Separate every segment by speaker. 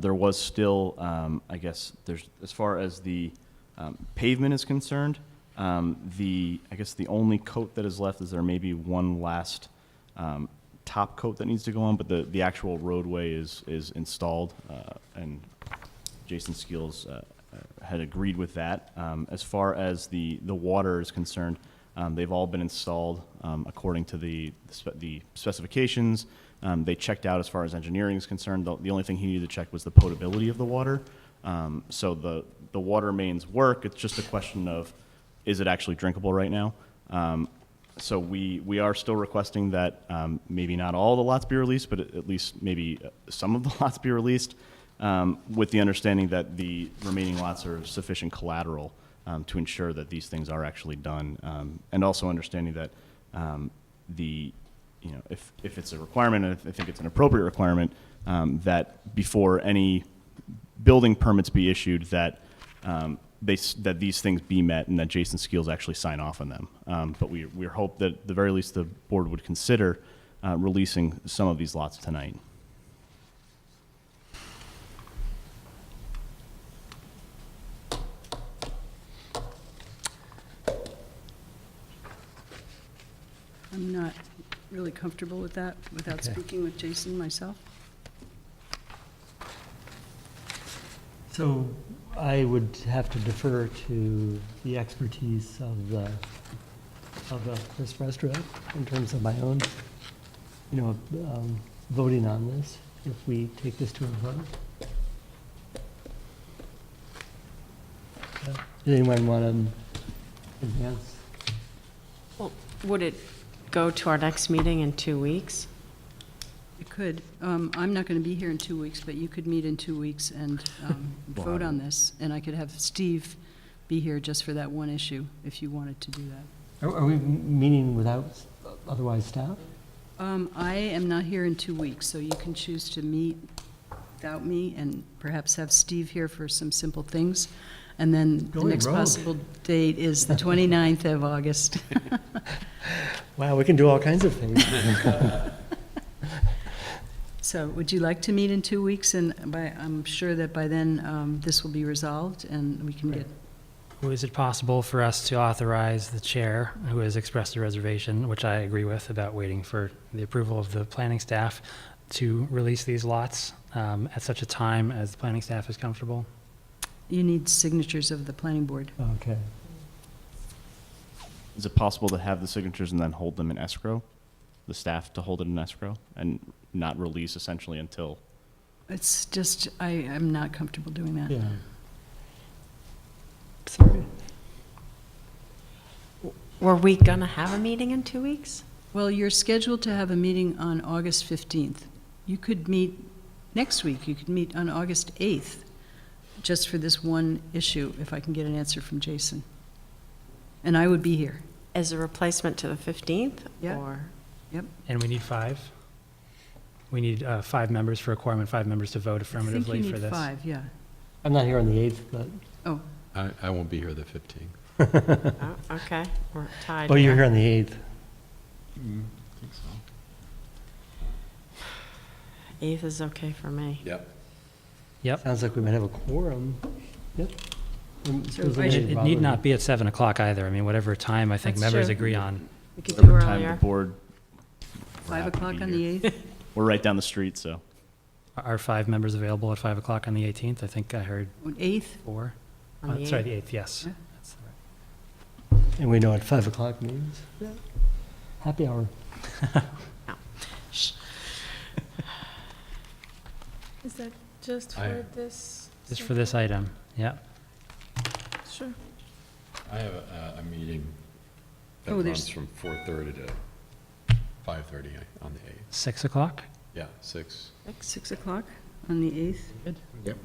Speaker 1: There was still, um, I guess, there's, as far as the um, pavement is concerned, um, the, I guess the only coat that is left is there may be one last um, top coat that needs to go on, but the, the actual roadway is, is installed, uh, and Jason Skills uh, uh, had agreed with that. Um, As far as the, the water is concerned, um, they've all been installed um, according to the, spe- the specifications. Um, They checked out as far as engineering is concerned. The the only thing he needed to check was the potability of the water. Um, So the, the water mains work, it's just a question of, is it actually drinkable right now? Um, So we, we are still requesting that um, maybe not all the lots be released, but at least maybe uh, some of the lots be released, um, with the understanding that the remaining lots are sufficient collateral um, to ensure that these things are actually done, um, and also understanding that um, the, you know, if, if it's a requirement, and if I think it's an appropriate requirement, um, that before any building permits be issued, that um, they, s- that these things be met and that Jason Skeels actually sign off on them. Um, But we, we hope that, at the very least, the board would consider uh, releasing some of these lots tonight.
Speaker 2: I'm not really comfortable with that without
Speaker 3: Okay.
Speaker 2: speaking with Jason myself.
Speaker 3: So I would have to defer to the expertise of the, of uh, this restaurant in terms of my own, you know, um, voting on this, if we take this to a vote. Uh, Does anyone want to advance?
Speaker 4: Well, Would it go to our next meeting in two weeks?
Speaker 2: You could, um, I'm not going to be here in two weeks, but you could meet in two weeks and um, vote on this. And I could have Steve be here just for that one issue, if you wanted to do that.
Speaker 3: Are are we m- meeting without s- otherwise staff?
Speaker 2: Um, I am not here in two weeks, so you can choose to meet without me and perhaps have Steve here for some simple things. And then the
Speaker 3: Going
Speaker 2: next
Speaker 3: rogue.
Speaker 2: possible date is the 29th of August.
Speaker 3: Wow, we can do all kinds of things.
Speaker 2: So would you like to meet in two weeks? And by, I'm sure that by then, um, this will be resolved and we can get,
Speaker 5: Is it possible for us to authorize the chair, who has expressed a reservation, which I agree with about waiting for the approval of the planning staff, to release these lots um, at such a time as the planning staff is comfortable?
Speaker 2: you need signatures of the planning board.
Speaker 3: Okay.
Speaker 1: Is it possible to have the signatures and then hold them in escrow? The staff to hold it in escrow and not release essentially until,
Speaker 2: It's just, I, I'm not comfortable doing that.
Speaker 3: Yeah. Sorry.
Speaker 4: Were we going to have a meeting in two weeks?
Speaker 2: Well, you're scheduled to have a meeting on August 15th. You could meet next week, you could meet on August 8th, just for this one issue, if I can get an answer from Jason. And I would be here.
Speaker 4: As a replacement to the 15th?
Speaker 2: Yeah.
Speaker 4: Or
Speaker 5: And we need five? We need uh, five members for a quorum and five members to vote affirmatively for
Speaker 2: I
Speaker 5: this.
Speaker 2: think you need five, yeah. Oh,
Speaker 3: I'm not here on the 8th, but
Speaker 6: I, I won't be here the 15th.
Speaker 4: oh, Okay, we're tied.
Speaker 3: Oh, you're here on the 8th.
Speaker 6: I think so.
Speaker 4: 8th is okay for me.
Speaker 6: Yep.
Speaker 5: Yep.
Speaker 3: Sounds like we might have a quorum. Yep. Um,
Speaker 2: So
Speaker 3: doesn't
Speaker 2: I
Speaker 5: It
Speaker 2: should-
Speaker 3: really
Speaker 5: it
Speaker 3: bother
Speaker 5: need
Speaker 3: me.
Speaker 5: not be at 7 o'clock either. I mean, whatever time I think
Speaker 4: That's
Speaker 5: members
Speaker 4: true.
Speaker 5: agree on.
Speaker 4: We could do
Speaker 1: whatever time the
Speaker 4: earlier.
Speaker 1: board. we're
Speaker 2: 5
Speaker 1: happy to
Speaker 2: o'clock
Speaker 1: be
Speaker 2: on
Speaker 1: here.
Speaker 2: the 8th?
Speaker 1: We're right down the street, so.
Speaker 5: Are five members available at 5 o'clock on the 18th? I think I heard
Speaker 2: 8th?
Speaker 5: four.
Speaker 4: on
Speaker 5: Uh,
Speaker 4: the
Speaker 5: Sorry,
Speaker 4: 8th.
Speaker 5: the 8th, yes.
Speaker 2: Yeah.
Speaker 5: That's the right-
Speaker 3: And we know what 5 o'clock means. Happy hour.
Speaker 7: Is that just
Speaker 6: I-
Speaker 7: for this?
Speaker 5: Just for this item, yeah.
Speaker 7: subject? Sure.
Speaker 6: I have a, a- a meeting that
Speaker 2: Oh, there's-
Speaker 6: runs from 4:30 to 5:30 on the 8th.
Speaker 5: 6 o'clock?
Speaker 6: Yeah, 6.
Speaker 2: 6 o'clock on the 8th?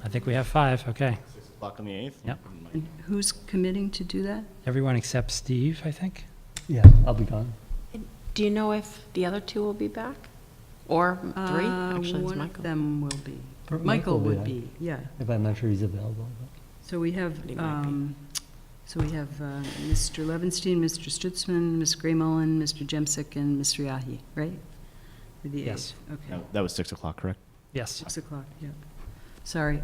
Speaker 5: I think we have five, okay.
Speaker 1: Six o'clock on the eighth?
Speaker 5: Yep.
Speaker 2: And who's committing to do that?
Speaker 5: Everyone except Steve, I think?
Speaker 3: Yeah, I'll be gone.
Speaker 4: Do you know if the other two will be back? Or three?
Speaker 2: Uh,
Speaker 4: Actually, it's
Speaker 2: One of
Speaker 4: Michael.
Speaker 2: them will be.
Speaker 3: Or
Speaker 2: Michael would
Speaker 3: I-
Speaker 2: be, yeah.
Speaker 3: If I'm not sure he's available.
Speaker 2: So we have,
Speaker 4: But he might be.
Speaker 2: um, so we have uh, Mr. Levinstein, Mr. Stutzman, Ms. Gray Mullen, Mr. Jemsek, and Ms. Riahi, right? For the
Speaker 5: Yes.
Speaker 2: 8th, okay.
Speaker 1: That was six o'clock, correct?
Speaker 5: Yes.
Speaker 2: 6 o'clock, yeah. Sorry,